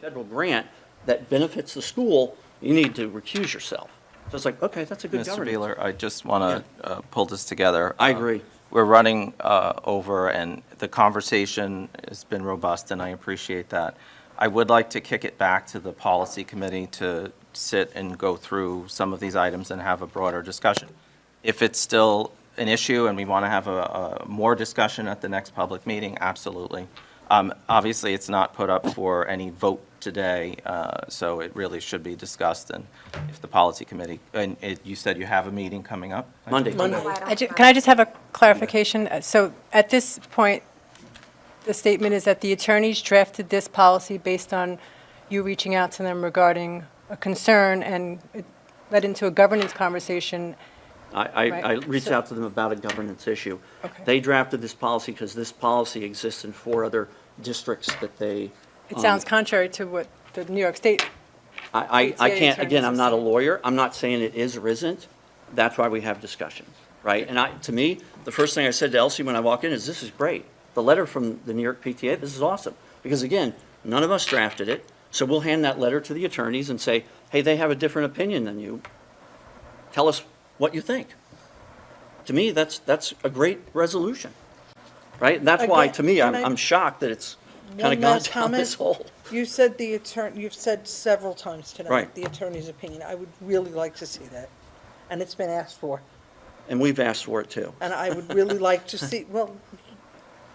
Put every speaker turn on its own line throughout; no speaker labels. federal grant that benefits the school, you need to recuse yourself. So it's like, okay, that's a good
Mr.
governance.
Beeler, I just want to pull this together.
I
Uh,
agree.
We're running uh, over, and the conversation has been robust, and I appreciate that. I would like to kick it back to the policy committee to sit and go through some of these items and have a broader discussion. If it's still an issue and we want to have a a more discussion at the next public meeting, absolutely. Um, Obviously, it's not put up for any vote today, uh, so it really should be discussed, and if the policy committee, and it- you said you have a meeting coming up?
Monday.
I ju- Can I just have a clarification? Uh, So at this point, the statement is that the attorneys drafted this policy based on you reaching out to them regarding a concern, and it led into a governance conversation.
I, I, I
Right.
reached out to them about a governance issue.
Okay.
They drafted this policy because this policy exists in four other districts that they.
It sounds contrary to what the New York State,
I, I, I
PTA
can't, again, I'm not a
attorneys.
lawyer, I'm not saying it is or isn't, that's why we have discussions, right? And I, to me, the first thing I said to Elsie when I walked in is, this is great. The letter from the New York PTA, this is awesome, because again, none of us drafted it, so we'll hand that letter to the attorneys and say, hey, they have a different opinion than you, tell us what you think. To me, that's, that's a great resolution, right? And that's why,
Again,
to me, I'm,
can I-
I'm shocked that it's kind of
One
gone
last
down
comment.
this hole.
You said the attorney, you've said several times
Right.
tonight, the attorney's opinion. I would really like to see that. And it's been asked for.
And we've asked for it too.
And I would really like to see, well,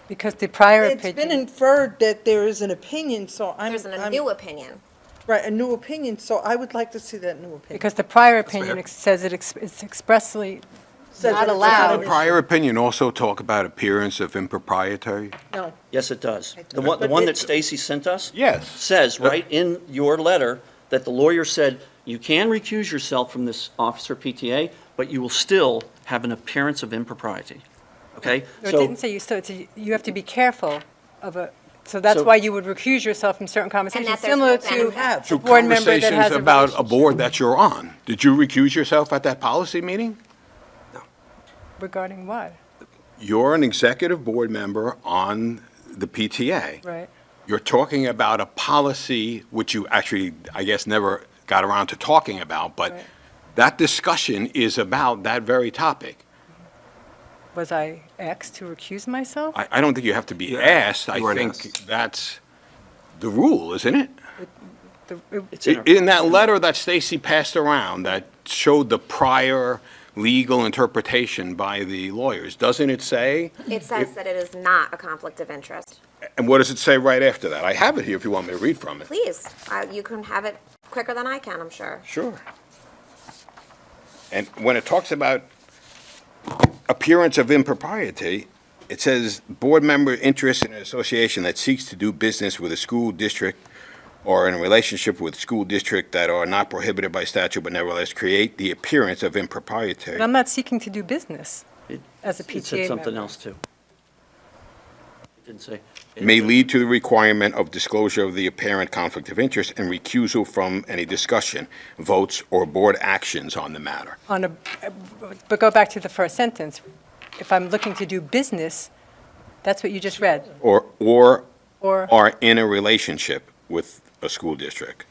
because the prior
it's been
opinion,
inferred that there is an opinion, so I'm.
There's a
I'm-
new opinion.
Right, a new opinion, so I would like to see that new opinion.
because the prior opinion ex- says it ex- it's expressly
Says
not
that it's
allowed.
not an-
Prior opinion also talk about appearance of impropriety?
No,
Yes, it does. The
does.
one, the
But
one
it-
that Stacy sent us?
Yes.
Says
But-
right in your letter that the lawyer said, you can recuse yourself from this officer PTA, but you will still have an appearance of impropriety. Okay?
Or it
So-
didn't say you, so it's, a- you have to be careful of a, so that's
So-
why you would recuse yourself from certain conversations,
that there's
similar
no
to
benefit.
a
Through
board member that
conversations
has a
about a
relationship
board that you're on. Did you recuse yourself at that policy meeting?
regarding what,
You're an executive board member on the PTA.
right?
You're talking about a policy which you actually, I guess, never got around to talking about, but
Right.
that discussion is about that very topic.
Was I asked to recuse myself?
I, I don't think you have to be asked. I
you weren't
think
asked.
that's the rule, isn't it?
The- it-
It's in
I-
our-
In that letter that Stacy passed around that showed the prior legal interpretation by the lawyers, doesn't it say?
It says that it is not a conflict of interest.
And what does it say right after that? I have it here if you want me to read from it.
Please, uh, you can have it quicker than I can, I'm sure.
Sure. And when it talks about appearance of impropriety, it says, "Board member interested in an association that seeks to do business with a school district or in a relationship with school district that are not prohibited by statute but nevertheless create the appearance of impropriety."
But I'm not seeking to do business
It-
as a
It said
PTA
something
member.
else too. It didn't say.
may lead to the requirement of disclosure of the apparent conflict of interest and recusal from any discussion, votes, or board actions on the matter.
On a, but go back to the first sentence. If I'm looking to do business, that's what you just read.
Or, or
Or
are in a relationship with a school district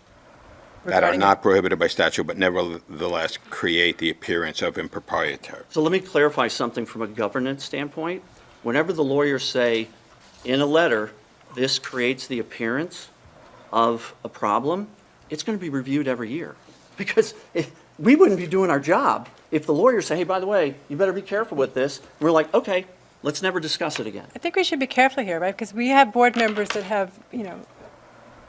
that are
regarding-
not prohibited by statute but nevertheless create the appearance of impropriety.
So let me clarify something from a governance standpoint. Whenever the lawyers say in a letter, this creates the appearance of a problem, it's going to be reviewed every year. Because if, we wouldn't be doing our job if the lawyers say, hey, by the way, you better be careful with this. We're like, okay, let's never discuss it again.
I think we should be careful here, right? Because we have board members that have, you know,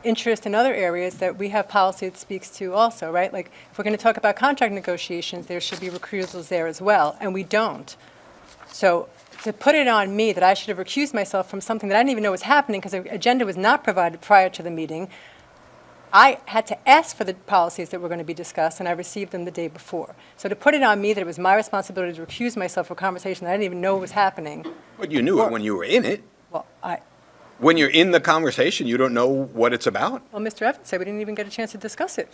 interest in other areas that we have policy that speaks to also, right? Like, if we're going to talk about contract negotiations, there should be recusals there as well, and we don't. So to put it on me that I should have recused myself from something that I didn't even know was happening because the agenda was not provided prior to the meeting, I had to ask for the policies that were going to be discussed, and I received them the day before. So to put it on me that it was my responsibility to recuse myself for conversation that I didn't even know was happening,
But you knew it when you were in it.
well, I,
When you're in the conversation, you don't know what it's about.
Well, Mr. Evans said we didn't even get a chance to discuss it.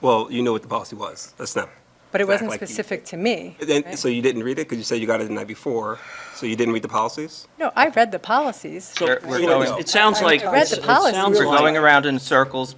Well, you know what the policy was. That's them.
but it wasn't
Like you-
specific to me.
Then,
right?
so you didn't read it because you said you got it the night before. So you didn't read the policies.
No, I read the policies.
So,
We're- we're going-
it sounds like,
I read the
it sounds
policy.
We're
like.
going around in circles